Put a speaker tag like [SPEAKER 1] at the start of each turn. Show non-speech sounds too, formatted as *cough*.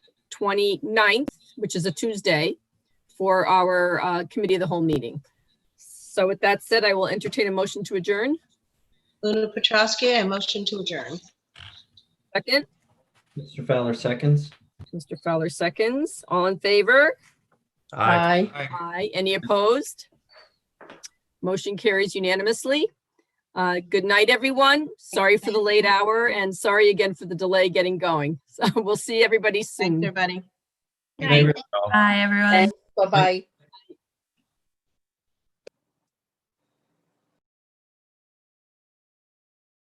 [SPEAKER 1] 29th, which is a Tuesday, for our uh, Committee of the Whole meeting. So with that said, I will entertain a motion to adjourn.
[SPEAKER 2] Luna Petrowski, I motion to adjourn.
[SPEAKER 1] Second,
[SPEAKER 3] Mr. Fowler seconds.
[SPEAKER 1] Mr. Fowler seconds. All in favor?
[SPEAKER 4] Aye.
[SPEAKER 1] Aye. Any opposed? Motion carries unanimously. Uh, Good night, everyone. Sorry for the late hour and sorry again for the delay getting going. *laughs* So we'll see everybody
[SPEAKER 2] Thanks,
[SPEAKER 1] soon.
[SPEAKER 2] everybody.
[SPEAKER 3] Good night, everyone.
[SPEAKER 5] Bye, everyone.
[SPEAKER 6] Bye-bye.